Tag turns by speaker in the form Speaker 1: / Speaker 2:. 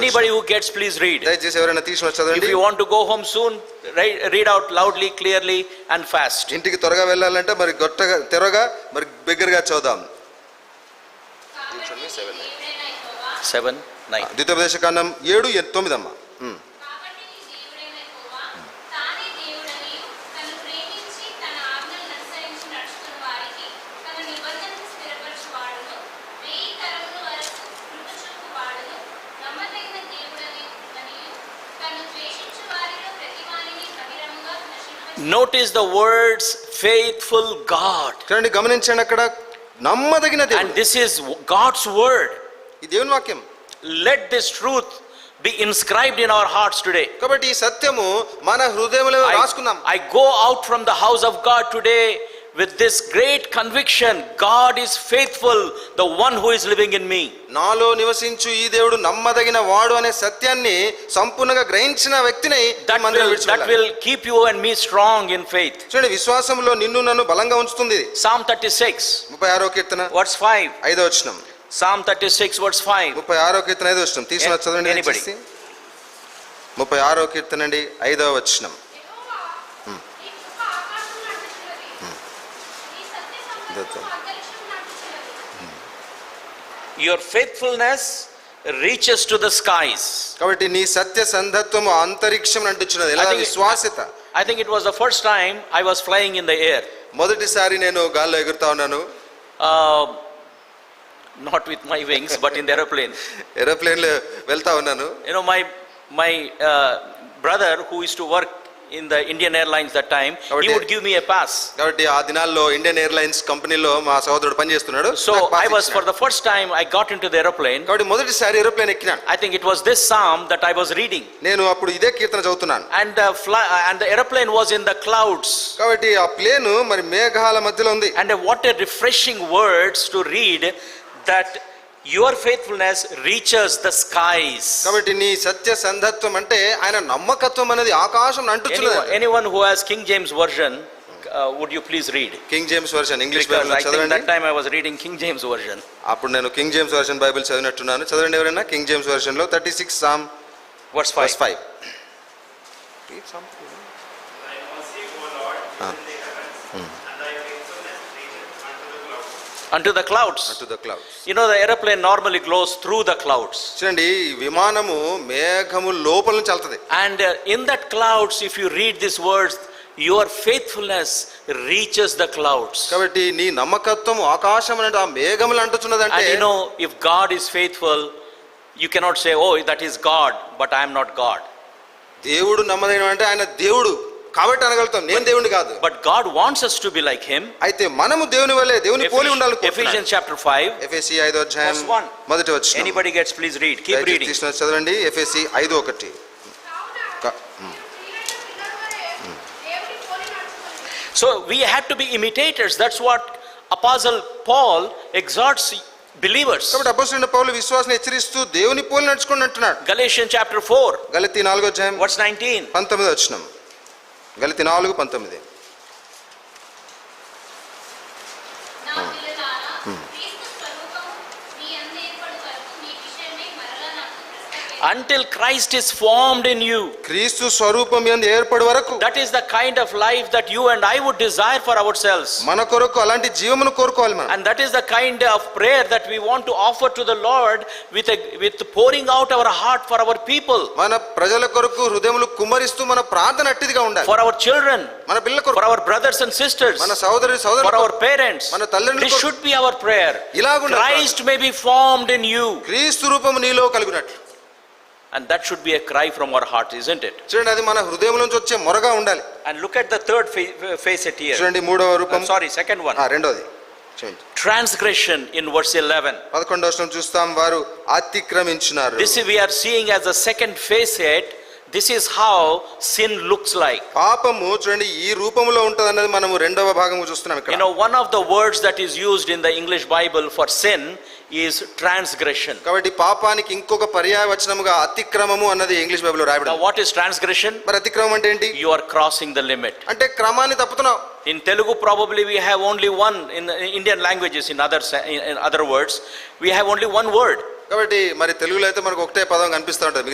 Speaker 1: Anybody who gets, please read.
Speaker 2: దయచేసి ఎవరైనా తీసుకుని
Speaker 1: If
Speaker 2: చదవండి
Speaker 1: you want to go home soon, ri- read out loudly, clearly, and fast.
Speaker 2: ఇంటికి త్వరగా వెళ్ళాలంటే మరి గొట్టగా త్వరగా మరి బిగ్గరగా చదుదాం
Speaker 3: కాబట్టి
Speaker 2: seven,
Speaker 3: నీ దేవుడైన యెహోవా,
Speaker 1: Seven, nine.
Speaker 2: ద్వితోపదేశ కాండం ఏడు ఎన్- తొమ్మిదమ్మ ఉమ్.
Speaker 3: కాబట్టి నీ దేవుడైన యెహోవా, తానే దేవుడని, తను ప్రేమించి తన ఆజ్ఞలను అనుసరించి నడుచుకుని వారికి తన నిబంధనను స్థిరపరచువాడును, వేయి తరముల వరకు కృప చూపువాడును, నమ్మదగిన దేవుడని మరియు తను ద్వేషించు వారిలో ప్రతివానిని బహిరంగంగా నశింపచేయువాడు.
Speaker 1: Notice the words faithful God.
Speaker 2: చూడండి గమనించండి అక్కడ నమ్మదగిన
Speaker 1: And
Speaker 2: దేవుడు
Speaker 1: this is God's word.
Speaker 2: ఈ దేవుని వాక్యం
Speaker 1: Let this truth be inscribed in our hearts today.
Speaker 2: కాబట్టి ఈ సత్యము మన హృదయంలో రాసుకుందాం
Speaker 1: I, I go out from the house of God today with this great conviction God is faithful, the one who is living in me.
Speaker 2: నాలో నివసించు ఈ దేవుడు నమ్మదగిన వాడు అనే సత్యాన్ని సంపూర్ణంగా గ్రహించిన వ్యక్తిని
Speaker 1: That
Speaker 2: మందిరం
Speaker 1: will,
Speaker 2: విడిచి
Speaker 1: that
Speaker 2: వెళ్ళాలి.
Speaker 1: will keep you and me strong in faith.
Speaker 2: చూడండి విశ్వాసంలో నిన్ను నన్ను బలంగా ఉంచుతుంది ఇది.
Speaker 1: Psalm 36,
Speaker 2: ముప్పై ఆరో కీర్తన
Speaker 1: verse 5.
Speaker 2: ఐదో వచనం
Speaker 1: Psalm 36, verse 5.
Speaker 2: ముప్పై ఆరో కీర్తన ఐదో వచనం తీసుకున్న చదవండి
Speaker 1: Anybody.
Speaker 2: దయచేసి. ముప్పై ఆరో కీర్తన అండి ఐదో వచనం
Speaker 3: యెహోవా, నీ కృప ఆకాశం నాటి చిన్నది. నీ సత్య
Speaker 2: దత్తం.
Speaker 3: సంకల్పం అంతరిక్షం నాటి చిన్నది.
Speaker 1: Your faithfulness reaches to the skies.
Speaker 2: కాబట్టి నీ సత్య సంధత్వము అంతరిక్షం అంటున్నది ఎలా
Speaker 1: I think-
Speaker 2: విశ్వాసత
Speaker 1: I think it was the first time I was flying in the air.
Speaker 2: మొదటిసారి నేను గాల్లో ఎగురుతా ఉన్నాను
Speaker 1: Uh, not with my wings, but in the aeroplane.
Speaker 2: Aeroplane లో వెళ్తా ఉన్నాను
Speaker 1: You know, my my uh, brother who used to work in the Indian Airlines that time, he
Speaker 2: Kabatti-
Speaker 1: would give me a pass.
Speaker 2: కాబట్టి ఆ దినాల్లో Indian airlines కంపెనీలో మా సహోదరుడు పనిచేస్తున్నాడు నాకు
Speaker 1: So
Speaker 2: pass
Speaker 1: I was for
Speaker 2: ఇచ్చినాడు.
Speaker 1: the first time I got into the aeroplane.
Speaker 2: కాబట్టి మొదటిసారి ఏరోప్లేన్ ఎక్కినాను
Speaker 1: I think it was this psalm that I was reading,
Speaker 2: నేను అప్పుడు ఇదే కీర్తన చదువుతున్నాను
Speaker 1: and the fly, and the aeroplane was in the clouds.
Speaker 2: కాబట్టి ఆ ప్లేన్ మరి మేఘాల మధ్యలో ఉంది
Speaker 1: And what a refreshing words to read that your faithfulness reaches the skies.
Speaker 2: కాబట్టి నీ సత్య సంధత్వం అంటే ఆయన నమ్మకత్వం అనేది ఆకాశం
Speaker 1: Anyone,
Speaker 2: అంటున్నది
Speaker 1: anyone who has King James version, uh, would you please read?
Speaker 2: King James version English
Speaker 1: Because
Speaker 2: Bible
Speaker 1: I think
Speaker 2: చదవండి
Speaker 1: that time I was reading King James version.
Speaker 2: అప్పుడు నేను కింగ్ జేమ్స్ వర్షన్ బైబిల్ చదివినట్టున్నాను చదవండి ఎవరైనా King James version లో thirty six psalm
Speaker 1: Verse
Speaker 2: plus
Speaker 1: 5.
Speaker 2: Five
Speaker 4: Thy mercy, O Lord, is in the heavens, and thy faithfulness reacheth unto the clouds.
Speaker 1: Unto the clouds.
Speaker 2: To the clouds
Speaker 1: You know, the airplane normally goes through the clouds.
Speaker 2: చూడండి ఈ విమానము మేఘము లోపల నుంచి వెళ్తది
Speaker 1: And uh, in that clouds, if you read these words, your faithfulness reaches the clouds.
Speaker 2: కాబట్టి నీ నమ్మకత్వం ఆకాశం అనేది ఆ మేఘములు అంటున్నది అంటే
Speaker 1: And you know, if God is faithful, you cannot say, oh, that is God, but I am not God.
Speaker 2: దేవుడు నమ్మదైన అంటే ఆయన దేవుడు కాబట్టి అనగలుగుతాం నేను దేవుడిని కాదు
Speaker 1: But God wants us to be like Him.
Speaker 2: అయితే మనము దేవుని వల్లే దేవుని పోలి ఉండాలి
Speaker 1: Ephesians, Ephesians chapter 5.
Speaker 2: ఎఫ్ఎసి ఐదో అధ్యాయం
Speaker 1: Verse one.
Speaker 2: మొదటి వచ్చిన
Speaker 1: Anybody gets, please read. Keep reading.
Speaker 2: తీసుకున్న చదవండి ఎఫ్ఎసి ఐదు ఒకటి
Speaker 3: కావున
Speaker 2: క-
Speaker 3: మీరు ప్రియులైన పిల్లలవలే దేవుని పోలి నడుచుకొనుడి.
Speaker 1: So we have to be imitators. That's what Apostle Paul exhorts believers.
Speaker 2: కాబట్టి అపోసిన పౌలు విశ్వాసం హెచ్చరిస్తూ దేవుని పోలి నడుచుకోండి అంటున్నాడు
Speaker 1: Galatians chapter 4,
Speaker 2: గలతి నాలుగో అధ్యాయం
Speaker 1: verse 19.
Speaker 2: పంతొమ్మిది వచ్చిన గలతి నాలుగు పంతొమ్మిది
Speaker 3: నా పిల్లలారా, క్రీస్తు స్వరూపము మీ అందు ఏర్పడు వరకు మీ విషయమై మరల నాకు ప్రశ్న వేయవద్దు.
Speaker 1: Until Christ is formed in you.
Speaker 2: క్రీస్తు స్వరూపం ఎందు ఏర్పడు వరకు
Speaker 1: That is the kind of life that you and I would desire for ourselves.
Speaker 2: మన కొరకు అలాంటి జీవమును కోరుకోవాలి మనం
Speaker 1: And that is the kind of prayer that we want to offer to the Lord with, a, with pouring out our heart for our people,
Speaker 2: మన ప్రజల కొరకు హృదయములు కుమ్మరిస్తూ మన ప్రార్థన అట్టిదిగా ఉండాలి
Speaker 1: for our children,
Speaker 2: మన పిల్లల
Speaker 1: for
Speaker 2: కొరకు
Speaker 1: our brothers and sisters,
Speaker 2: మన సోదరి
Speaker 1: for
Speaker 2: సోదరు
Speaker 1: our parents.
Speaker 2: మన తల్లిదండ్రుల
Speaker 1: This
Speaker 2: కొరకు.
Speaker 1: should be our prayer.
Speaker 2: ఇలాగుండాలి
Speaker 1: Christ may be formed in you.
Speaker 2: క్రీస్తు రూపము నీలో కలుగునట్లు
Speaker 1: And that should be a cry from our heart, isn't it?
Speaker 2: చూడండి అది మన హృదయం నుంచి వచ్చే మొరగా ఉండాలి
Speaker 1: And look at the third fa- facet here.
Speaker 2: చూడండి మూడవ రూపం
Speaker 1: I'm sorry, second one.
Speaker 2: ఆ, రెండోది చూడండి
Speaker 1: Transgression in verse 11.
Speaker 2: పదకొండవ వచనం చూస్తాం వారు అతిక్రమించినారు
Speaker 1: This we are seeing as the second facet. This is how sin looks like.
Speaker 2: పాపము చూడండి ఈ రూపంలో ఉంటది అన్నది మనము రెండవ భాగము చూస్తున్నాం
Speaker 1: You
Speaker 2: ఇక్కడ
Speaker 1: know, one of the words that is used in the English Bible for sin is transgression.
Speaker 2: కాబట్టి పాపానికి ఇంకొక పర్యాయ వచనముగా అతిక్రమము అన్నది ఇంగ్లీష్ బైబిల్లో రాయబడి
Speaker 1: Now, what is transgression?
Speaker 2: మరి అతిక్రమం అంటే ఏంటి
Speaker 1: You are crossing the limit.
Speaker 2: అంటే క్రమాన్ని తప్పుతున్నావు
Speaker 1: In Telugu, probably we have only one, in in Indian languages, in other, sa- in in other words, we have only one word.
Speaker 2: కాబట్టి మరి తెలుగులో అయితే మనకు ఒకటే పదం కనిపిస్తూ ఉంటుంది